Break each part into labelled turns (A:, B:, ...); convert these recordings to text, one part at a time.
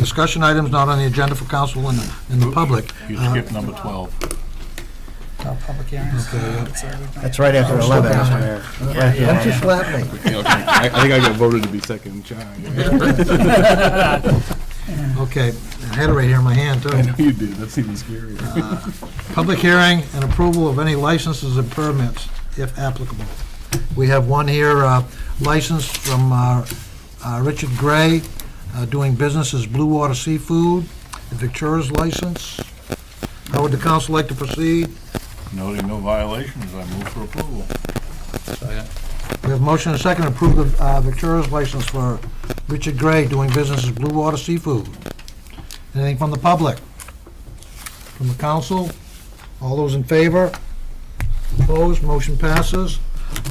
A: discussion items not on the agenda for council and, and the public.
B: You skipped number 12.
C: Uh, Public hearings. Uh, That's all we've done.
D: That's right
A: Oh,
D: after 11, Mr. Mayor. Right here.
A: Don't you slap me.
B: I think I got voted to be second child.
A: Okay, I had it right here in my hand,
B: I
A: too.
B: know you did, that's even scarier.
A: Public hearing and approval of any licenses and permits, if applicable. We have one here, uh, license from uh, uh, Richard Gray, uh, doing business as Blue Water Seafood, a Victura's license. How would the council like to proceed?
B: Noting no violations, I move for approval.
A: We have motion and second to approve the uh, Victura's license for Richard Gray, doing business as Blue Water Seafood. Anything from the public? From the council? All those in favor? Opposed? Motion passes.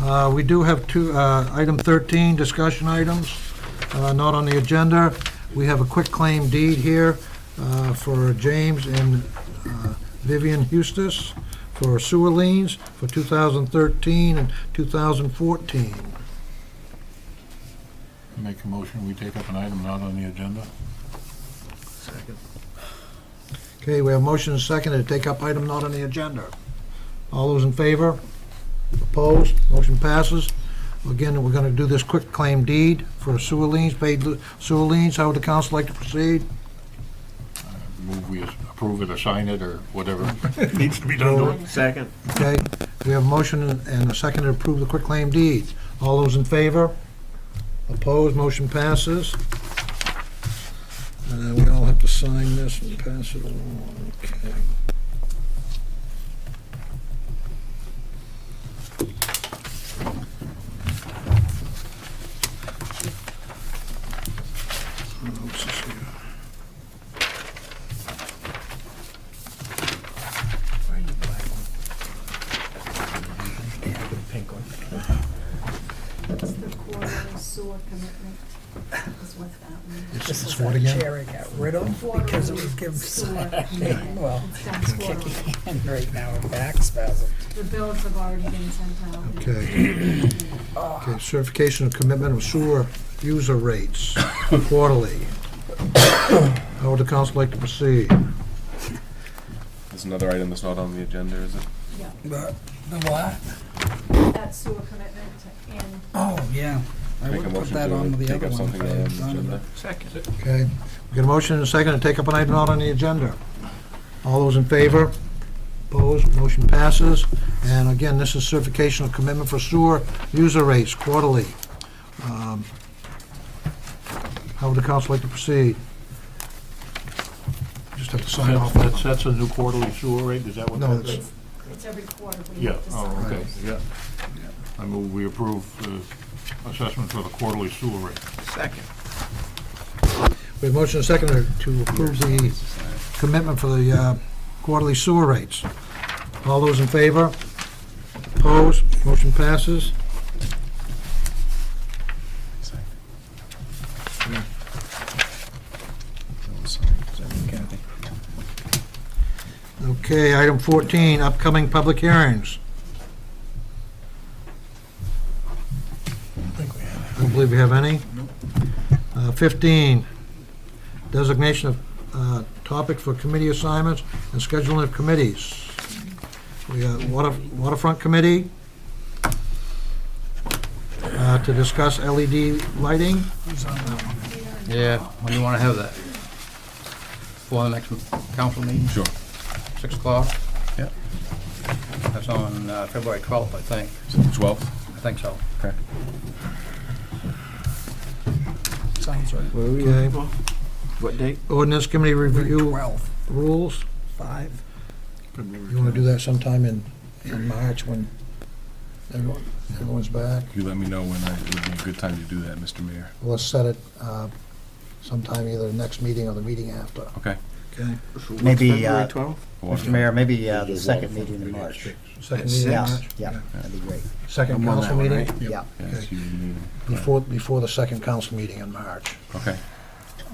A: Uh, We do have two, uh, item 13, discussion items, uh, not on the agenda. We have a quick claim deed here uh, for James and uh, Vivian Hustis for sewer liens for 2013 and 2014.
B: Make a motion, we take up an item not on the agenda.
A: Okay, we have motion and second to take up item not on the agenda. All those in favor? Opposed? Motion passes. Again, we're going to do this quick claim deed for sewer liens, paid li- sewer liens. How would the council like to proceed?
B: Move we approve it or sign it or whatever needs to be done to it.
D: Second.
A: Okay, we have a motion and a second to approve the quick claim deed. All those in favor? Opposed? Motion passes. And then we all have to sign this and pass it along. Okay. What else is here?
E: It's the quarterly sewer commitment is with that
A: It's-
C: This
A: It's
C: is
A: what
C: what a
A: again?
C: chair I got rid of
E: one.
C: because it would give,
E: Sewer commitment.
C: well,
E: It's done quarterly.
C: kicking hand right now, a back spasm.
E: The bills have already been sent out.
A: Okay. Okay, certification of commitment of sewer user rates quarterly. How would the council like to proceed?
F: There's another item that's not on the agenda, is it?
E: Yeah,
C: The the what?
E: that sewer commitment and
C: Oh, yeah. I
F: Make a
C: would put
F: motion
C: that
F: to
C: on with the
F: take
C: other
F: up
C: one if
F: something
C: I
F: not on
C: had
F: the
C: done it.
F: agenda.
A: Okay, we got a motion and a second to take up an item not on the agenda. All those in favor? Opposed? Motion passes. And again, this is certification of commitment for sewer user rates quarterly. Um, How would the council like to proceed? Just have to sign off.
B: That sets a new quarterly sewer rate, is that what
A: No,
B: that
A: it's-
B: is?
E: it's, it's every quarter we
B: Yeah,
E: have to
B: oh,
E: sign.
B: okay, yeah. I move we approve the assessment for the quarterly sewer rate.
A: We have motion and second to approve the commitment for the uh, quarterly sewer rates. All those in favor? Opposed? Motion passes. Okay, item 14, upcoming public hearings. I don't believe we have any. Uh, 15, designation of uh, topic for committee assignments and scheduling of committees. We got water- waterfront committee uh, to discuss LED lighting.
G: Yeah, when you want to have that? For the next council meeting?
F: Sure.
G: Six o'clock?
F: Yeah.
G: That's on uh, February 12th, I think.
F: Twelve?
G: I think so.
C: Sounds right.
A: Okay.
D: What date?
A: Ordinance committee review
C: Twelve,
A: rules.
C: five.
A: You want to do that sometime in, in March when everyone, everyone's back?
F: You let me know when I, it would be a good time to do that, Mr. Mayor.
A: Let's set it uh, sometime either the next meeting or the meeting after.
F: Okay.
A: Okay.
D: Maybe, uh,
F: Water-
D: Mr. Mayor, maybe uh, the second meeting in March.
A: Second
D: Yes,
A: meeting in March?
D: Yeah, that'd be great.
A: Second council meeting?
D: Yeah.
F: Yeah, it's you and me.
A: Before, before the second council meeting in March.
F: Okay.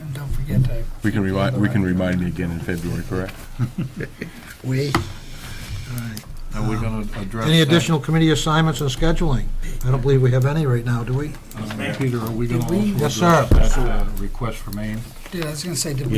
C: And don't forget to
F: We can remind, we can remind me again in February, correct?
A: We? All right.
B: Are we gonna address?
A: Any
B: that?
A: additional committee assignments and scheduling? I don't believe we have any right now, do we?
B: Uh, Peter, are we gonna
C: Did we-
B: also
A: Yes, sir.
B: address that uh, request for Maine?
C: Dude, I was gonna say, did we